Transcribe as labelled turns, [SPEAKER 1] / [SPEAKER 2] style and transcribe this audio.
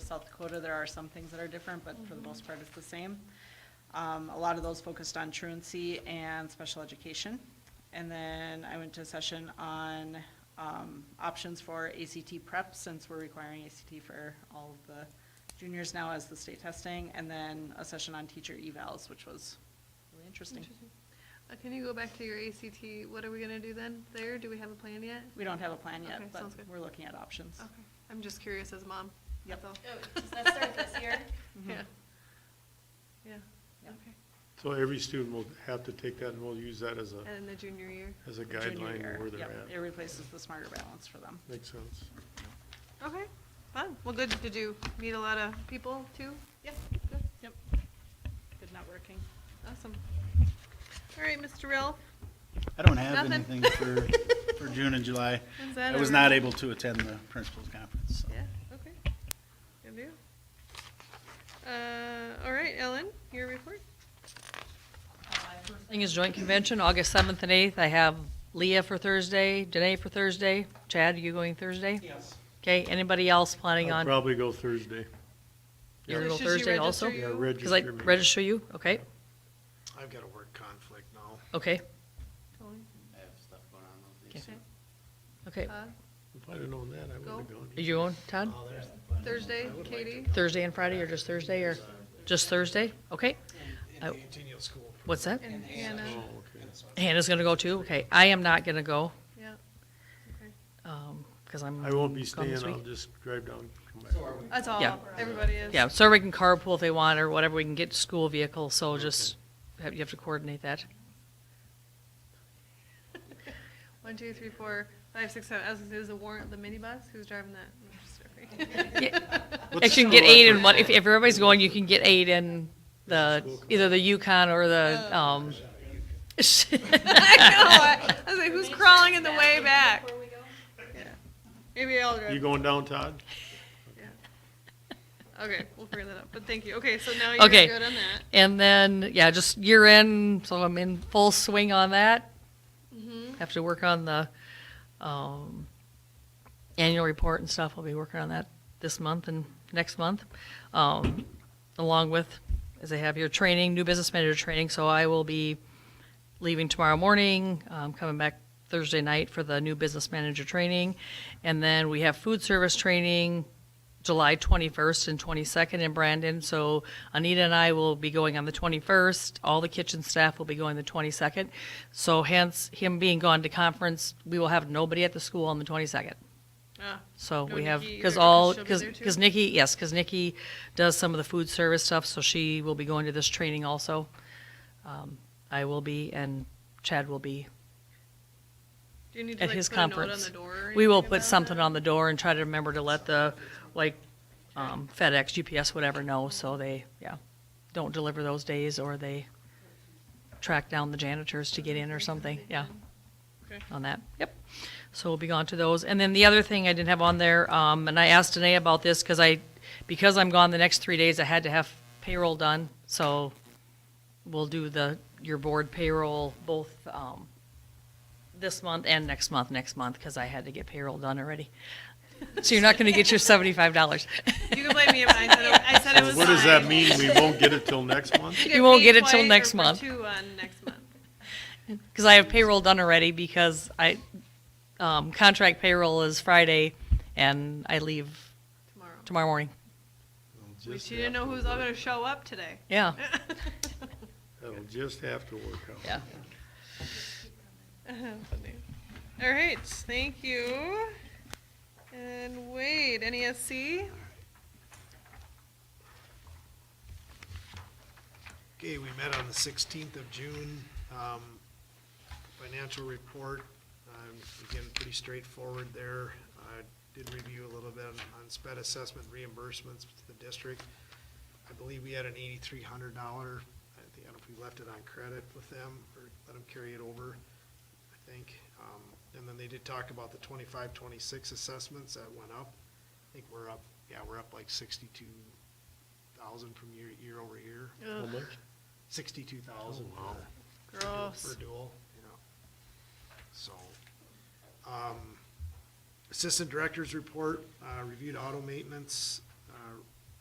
[SPEAKER 1] South Dakota, there are some things that are different, but
[SPEAKER 2] Mhm.
[SPEAKER 1] for the most part, it's the same. Um, A lot of those focused on truancy and special education. And then I went to a session on um, options for ACT prep, since we're requiring ACT for all of the juniors now as the state testing, and then a session on teacher evals, which was really interesting.
[SPEAKER 2] Interesting. Uh, Can you go back to your ACT? What are we gonna do then there? Do we have a plan yet?
[SPEAKER 1] We don't have a plan
[SPEAKER 2] Okay,
[SPEAKER 1] yet, but
[SPEAKER 2] sounds good.
[SPEAKER 1] we're looking at options.
[SPEAKER 2] Okay, I'm just curious as a mom.
[SPEAKER 1] Yep.
[SPEAKER 2] That's all.
[SPEAKER 3] Oh, does that start this year?
[SPEAKER 2] Yeah. Yeah,
[SPEAKER 1] Yep.
[SPEAKER 2] okay.
[SPEAKER 4] So every student will have to take that and we'll use that as a,
[SPEAKER 2] And in the junior year?
[SPEAKER 4] as a
[SPEAKER 1] Junior
[SPEAKER 4] guideline
[SPEAKER 1] year,
[SPEAKER 4] where they're
[SPEAKER 1] yep, It
[SPEAKER 4] at.
[SPEAKER 1] replaces the smarter balance for them.
[SPEAKER 4] Makes sense.
[SPEAKER 2] Okay, fun. Well, good. Did you meet a lot of people too?
[SPEAKER 1] Yep, yep. Good networking.
[SPEAKER 2] Awesome. All right, Mr. Ralph.
[SPEAKER 5] I don't have
[SPEAKER 2] Nothing.
[SPEAKER 5] anything for, for June and July.
[SPEAKER 2] Is that
[SPEAKER 5] I was
[SPEAKER 2] a-
[SPEAKER 5] not able to attend the principals conference, so.
[SPEAKER 2] Yeah, okay. Good deal. Uh, all right, Ellen, your report?
[SPEAKER 6] Thing is joint convention, August seventh and eighth. I have Leah for Thursday, Danae for Thursday. Chad, you going Thursday?
[SPEAKER 1] Yes.
[SPEAKER 6] Okay, anybody else planning
[SPEAKER 4] I'll
[SPEAKER 6] on,
[SPEAKER 4] probably go Thursday.
[SPEAKER 6] you're gonna
[SPEAKER 2] So
[SPEAKER 6] go
[SPEAKER 2] should she
[SPEAKER 6] Thursday
[SPEAKER 2] register
[SPEAKER 6] also?
[SPEAKER 2] you?
[SPEAKER 4] Yeah,
[SPEAKER 6] Cause I
[SPEAKER 4] register me.
[SPEAKER 6] register you? Okay,
[SPEAKER 4] I've got a work conflict now.
[SPEAKER 6] okay,
[SPEAKER 2] Tony,
[SPEAKER 5] I have stuff going on those
[SPEAKER 6] days. okay.
[SPEAKER 2] Todd?
[SPEAKER 4] If I'd have known that, I would have
[SPEAKER 2] Go.
[SPEAKER 4] gone.
[SPEAKER 6] Are you going,
[SPEAKER 4] Uh,
[SPEAKER 6] Todd?
[SPEAKER 2] Thursday, Katie?
[SPEAKER 6] Thursday and Friday or just Thursday or just Thursday? Okay. I- What's that?
[SPEAKER 2] And Hannah,
[SPEAKER 4] Oh, okay.
[SPEAKER 6] Hannah's gonna go too? Okay, I am not gonna go,
[SPEAKER 2] yeah. Okay.
[SPEAKER 6] um, cause I'm.
[SPEAKER 4] I won't be
[SPEAKER 6] gone
[SPEAKER 4] staying,
[SPEAKER 6] this
[SPEAKER 4] I'll
[SPEAKER 6] week.
[SPEAKER 4] just drive down, come back.
[SPEAKER 2] That's all,
[SPEAKER 6] Yeah.
[SPEAKER 2] everybody is.
[SPEAKER 6] Yeah, so we can carpool if they want or whatever, we can get school vehicles, so just, have- you have to coordinate that.
[SPEAKER 2] One, two, three, four, five, six, seven. I was gonna say, is the warrant the minibus? Who's driving that? No, just joking.
[SPEAKER 6] Yeah.
[SPEAKER 4] What's
[SPEAKER 6] Actually, you can get
[SPEAKER 4] the school
[SPEAKER 6] eight
[SPEAKER 4] effort?
[SPEAKER 6] in one, if, if everybody's going, you can get eight in the,
[SPEAKER 4] School committee.
[SPEAKER 6] either the Yukon or the, um.
[SPEAKER 2] I know, I- I was like, who's crawling in the way back?
[SPEAKER 3] Before we go?
[SPEAKER 2] Yeah. Maybe I'll drive.
[SPEAKER 4] You going down, Todd?
[SPEAKER 2] Okay, we'll figure that out, but thank you. Okay, so now you're
[SPEAKER 6] Okay.
[SPEAKER 2] good on that.
[SPEAKER 6] And then, yeah, just year end, so I'm in full swing on that.
[SPEAKER 2] Mm-hmm.
[SPEAKER 6] Mm-hmm. Have to work on the, um, annual report and stuff. I'll be working on that this month and next month. Um, along with, as I have your training, new business manager training, so I will be leaving tomorrow morning, um, coming back Thursday night for the new business manager training. And then we have food service training July 21st and 22nd in Brandon. So Anita and I will be going on the 21st. All the kitchen staff will be going the 22nd. So hence him being gone to conference, we will have nobody at the school on the 22nd.
[SPEAKER 2] Ah,
[SPEAKER 6] So
[SPEAKER 2] No
[SPEAKER 6] we have,
[SPEAKER 2] Nikki
[SPEAKER 6] because
[SPEAKER 2] either, 'cause
[SPEAKER 6] all,
[SPEAKER 2] she'll be
[SPEAKER 6] because
[SPEAKER 2] there too?
[SPEAKER 6] Nikki, yes, because Nikki does some of the food service stuff, so she will be going to this training also. Um, I will be, and Chad will be.
[SPEAKER 2] Do you need to
[SPEAKER 6] At
[SPEAKER 2] like
[SPEAKER 6] his
[SPEAKER 2] put a note on
[SPEAKER 6] conference.
[SPEAKER 2] the door or
[SPEAKER 6] We will
[SPEAKER 2] anything
[SPEAKER 6] put
[SPEAKER 2] about
[SPEAKER 6] something
[SPEAKER 2] that?
[SPEAKER 6] on the door and try to remember to let the, like, um, FedEx, GPS, whatever know, so they, yeah, don't deliver those days, or they track down the janitors to get in or something, yeah.
[SPEAKER 2] Okay.
[SPEAKER 6] on that. Yep. So we'll be gone to those. And then the other thing I didn't have on there, um, and I asked Danae about this because I, because I'm gone the next three days, I had to have payroll done. So we'll do the, your board payroll both, um, this month and next month, next month, because I had to get payroll done already. So you're not going to get your seventy-five dollars.
[SPEAKER 2] You can blame me if I said it, I said it was
[SPEAKER 4] What does that
[SPEAKER 2] mine.
[SPEAKER 4] mean? We won't get it till next month?
[SPEAKER 6] You won't
[SPEAKER 2] paid
[SPEAKER 6] get it
[SPEAKER 2] twice
[SPEAKER 6] till
[SPEAKER 2] or
[SPEAKER 6] next
[SPEAKER 2] for
[SPEAKER 6] month.
[SPEAKER 2] Two on next month.
[SPEAKER 6] Because I have payroll done already because I, um, contract payroll is Friday and I leave
[SPEAKER 2] Tomorrow.
[SPEAKER 6] tomorrow morning.
[SPEAKER 2] At least you didn't know who's all gonna show up today.
[SPEAKER 6] Yeah.
[SPEAKER 4] That'll just have to work out.
[SPEAKER 6] Yeah.
[SPEAKER 2] All right, thank you. And Wade, NESC?
[SPEAKER 7] Okay, we met on the sixteenth of June. Um, Financial report, um, again, pretty straightforward there. I did review a little bit on sped assessment reimbursements to the district. I believe we had an eighty-three hundred dollar, I think, I don't know if we left it on credit with them or let them carry it over, I think. Um, And then they did talk about the twenty-five, twenty-six assessments that went up. I think we're up, yeah, we're up like sixty-two thousand from year, year over year
[SPEAKER 4] How much?
[SPEAKER 7] sixty-two thousand.
[SPEAKER 4] Oh,
[SPEAKER 2] Gross.
[SPEAKER 7] For dual, you know. So, um, assistant director's report, uh, reviewed auto maintenance, uh, uh,